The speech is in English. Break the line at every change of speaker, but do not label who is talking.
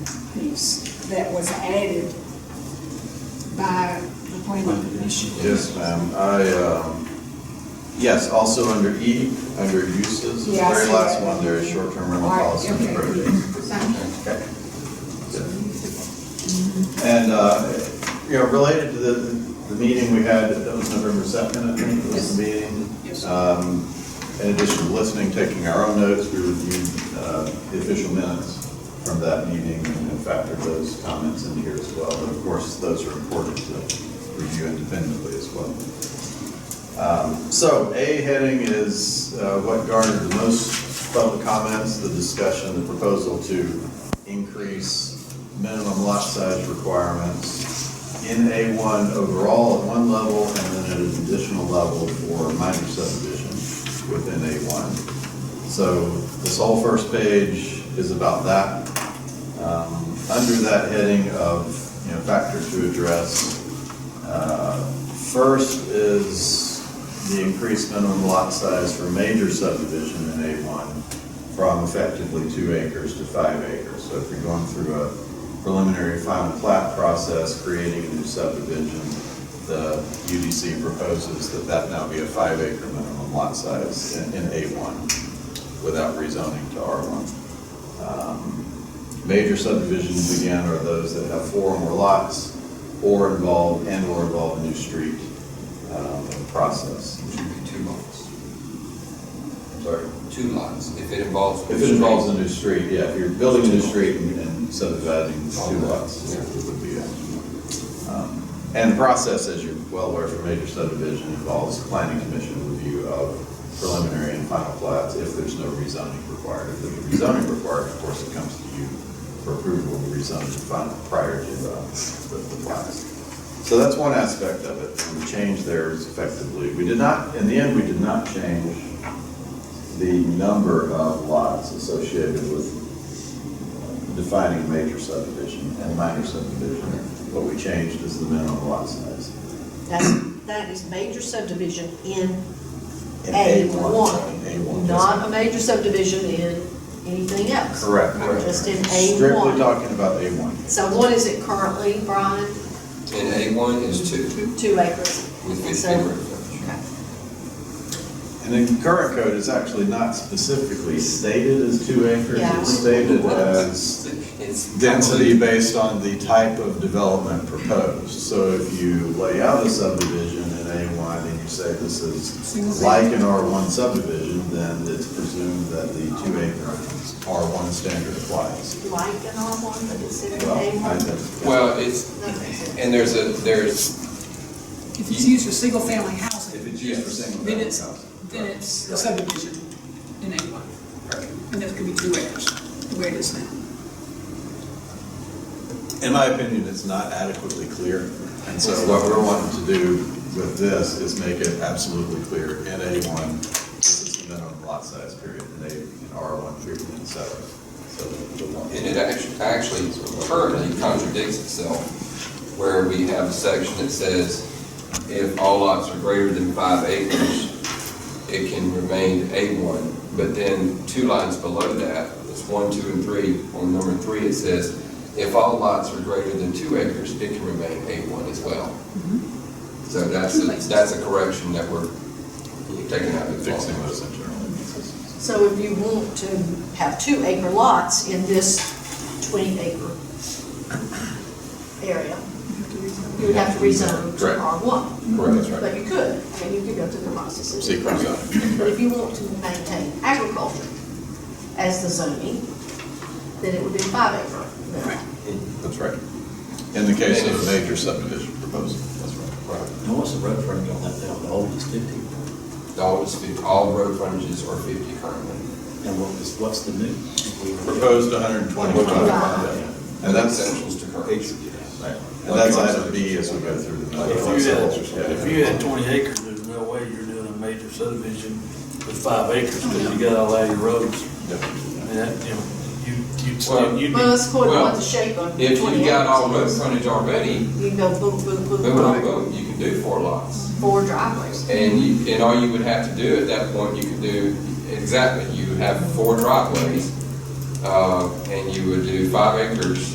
piece that was added by the planning commission.
Yes, ma'am. I, um, yes, also under E, under uses, the
Yeah, I
very
see
last
that.
one, there is short-term rental
All right,
policy
okay.
and projects. Okay. And, uh, you know, related to the, the meeting we had, that was November second, I think, was the meeting.
Yes.
Um, In addition to listening, taking our own notes, we reviewed uh, the official minutes from that meeting and factored those comments in here as well. And of course, those are important to review independently as well. Um, So A heading is uh, what garnered the most public comments, the discussion, the proposal to increase minimum lot size requirements in A1 overall at one level and then at an additional level for minor subdivision within A1. So this whole first page is about that. Um, Under that heading of, you know, factors to address, uh, First is the increased minimum lot size for major subdivision in A1 from effectively two acres to five acres. So if you're going through a preliminary final plat process, creating a new subdivision, the UDC proposes that that now be a five acre minimum lot size in in A1 without rezoning to R1. Um, Major subdivisions again are those that have four or more lots or involve, and or involve a new street um, process.
It should be two lots,
I'm sorry.
two lots, if it involves.
If it involves a new street, yeah, if you're building a new street and and subdividing two lots, it would be that. Um, And the process, as you're well aware from major subdivision, involves planning commission review of preliminary and final plats if there's no rezoning required. If there's rezoning required, of course, it comes to you for approval of rezoning final prior to uh, the the plats. So that's one aspect of it, and the change there is effectively, we did not, in the end, we did not change the number of lots associated with defining major subdivision and minor subdivision. What we changed is the minimum lot size.
That's, that is major subdivision in
In
A
A1,
one, not a major subdivision in anything else.
Correct.
Just in A
Strictly
one.
talking about A1.
So what is it currently, Brian?
And A one is two,
Two acres.
with
And
fifty
so-
acre frontage.
Okay.
And in current code, it's actually not specifically stated as two acres.
Yeah.
It's stated as
It's
uh, density
probably-
based on the type of development proposed. So if you lay out a subdivision in A1 and you say this is like an R1 subdivision, then it's presumed that the two acre R1 standard applies.
Like an R one, but it's in
Well,
A
I
one.
think-
Well, it's, and there's a, there's,
If it's used for single-family housing,
If it's used for single
then
family
it's,
housing.
then it's subdivision in A1. And that could be two acres, the way it is now.
In my opinion, it's not adequately clear. And so what we're wanting to do with this is make it absolutely clear in A1, this is the minimum lot size period, in A, in R1 period, and so. so the one-
and it actually, actually currently contradicts itself, where we have a section that says if all lots are greater than five acres, it can remain A one, but then two lines below that, it's one, two, and three, on number three, it says if all lots are greater than two acres, it can remain A one as well. So that's, a- that's a correction that we're taking out of the
Fixing
law.
those internal differences.
So if you want to have two acre lots in this twenty acre area, you would have to rezone
Correct.
to R one.
Correct, that's
But you could, I mean, you could go through the process. of
Secret zoning.
But if you want to maintain agriculture as the zoning, then it would be five acre. minimum.
That's right. In the case of a major subdivision proposal, that's right.
Right.
Now, what's the road frontage on that now, the old is fifty,
All is fif- all road frontages are fifty currently.
and what is, what's the new?
Proposed 125.
Wow.
And that's,
Essentials to currents.
right. and that's item B as we go through the.
If you had, if you had twenty acres, there's no way you're doing a major subdivision with five acres, because you got all out your roads. I mean, that, you know, you,
Well-
you'd, you'd
Well,
be,
that's according to what
Well,
the shape of
If
twenty
you got all road
acres is.
frontage already,
You can go boom, boom, boom,
boom, boom,
boom,
boom, you can do four lots.
four driveways.
And you, and all you would have to do at that point, you could do, exactly, you would have four driveways, uh, and you would do five acres